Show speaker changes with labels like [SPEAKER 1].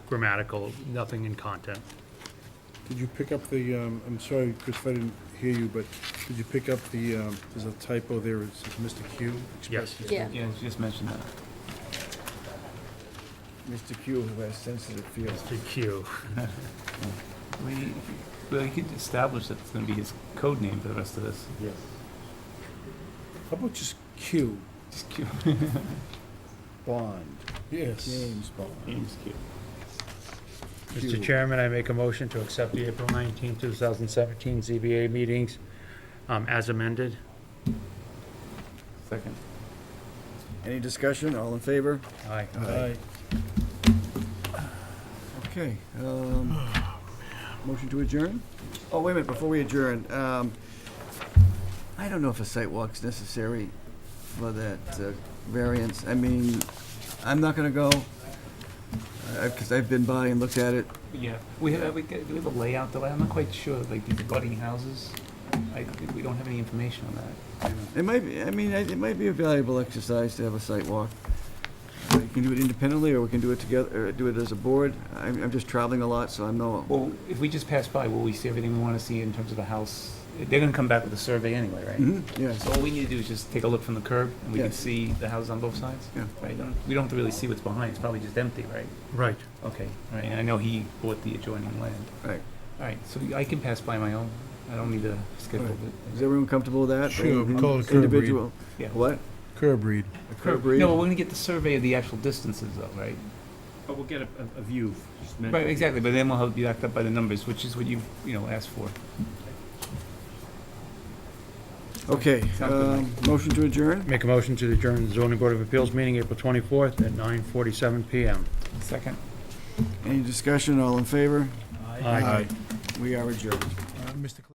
[SPEAKER 1] grammatical, nothing in content.
[SPEAKER 2] Did you pick up the, um, I'm sorry, Chris, I didn't hear you, but did you pick up the, um, there's a typo there, it says Mr. Q?
[SPEAKER 1] Yes.
[SPEAKER 2] Express-
[SPEAKER 3] Yeah.
[SPEAKER 4] Yeah, she just mentioned that.
[SPEAKER 5] Mr. Q, who has sensitive feelings.
[SPEAKER 1] The Q.
[SPEAKER 4] We, well, you could establish that it's gonna be his code name for the rest of this.
[SPEAKER 5] Yes.
[SPEAKER 2] How about just Q?
[SPEAKER 4] Just Q.
[SPEAKER 5] Bond,
[SPEAKER 2] Yes.
[SPEAKER 5] James Bond.
[SPEAKER 4] James Q.
[SPEAKER 5] Q.
[SPEAKER 1] Mr. Chairman, I make a motion to accept the April 19, 2017 ZBA meetings um, as amended.
[SPEAKER 4] Second.
[SPEAKER 5] Any discussion? All in favor?
[SPEAKER 1] Aye.
[SPEAKER 2] Aye.
[SPEAKER 5] Okay, um, motion to adjourn? Oh, wait a minute, before we adjourn, um, I don't know if a site walk's necessary for that uh, variance. I mean, I'm not gonna go, because I've been by and looked at it.
[SPEAKER 4] Yeah, we have, we get, do we have a layout though? I'm not quite sure, like these budding houses. I think we don't have any information on that.
[SPEAKER 5] It might, be. I mean, it might be a valuable exercise to have a site walk. You can do it independently, or we can do it together, or do it as a board. I'm, I'm just traveling a lot, so I'm no,
[SPEAKER 4] Well, if we just pass by, will we see everything we wanna see in terms of the house? They're gonna come back with a survey anyway, right?
[SPEAKER 5] Mhm, yes.
[SPEAKER 4] So all we need to do is just take a look from the curb, and we can
[SPEAKER 5] Yes.
[SPEAKER 4] see the houses on both sides?
[SPEAKER 5] Yeah.
[SPEAKER 4] Right, don't- we don't have to really see what's behind, it's probably just empty, right?
[SPEAKER 1] Right.
[SPEAKER 4] Okay, all right, and I know he bought the adjoining land.
[SPEAKER 5] Right.
[SPEAKER 4] All right, so I can pass by my own, I don't need to schedule
[SPEAKER 5] All right. Is
[SPEAKER 4] it.
[SPEAKER 5] everyone comfortable with that? Um,
[SPEAKER 2] Sure, we call it a curb read.
[SPEAKER 5] Individual,
[SPEAKER 4] Yeah.
[SPEAKER 5] what?
[SPEAKER 2] Curb read.
[SPEAKER 5] A curb read?
[SPEAKER 4] No, but we're gonna get the survey of the actual distances though, right?
[SPEAKER 6] But we'll get a, a- a view. just meant-
[SPEAKER 4] Right, exactly, but then we'll have to be backed up by the numbers, which is what you, you know, asked for.
[SPEAKER 5] Okay,
[SPEAKER 4] Sounds good,
[SPEAKER 5] um, motion to adjourn?
[SPEAKER 1] Make a motion to adjourn the zoning board of appeals meeting April 24th at 9:47 PM.
[SPEAKER 4] Second.
[SPEAKER 5] Any discussion, all in favor?
[SPEAKER 1] Aye.
[SPEAKER 5] We are adjourned.
[SPEAKER 2] Uh, Mr. Cl-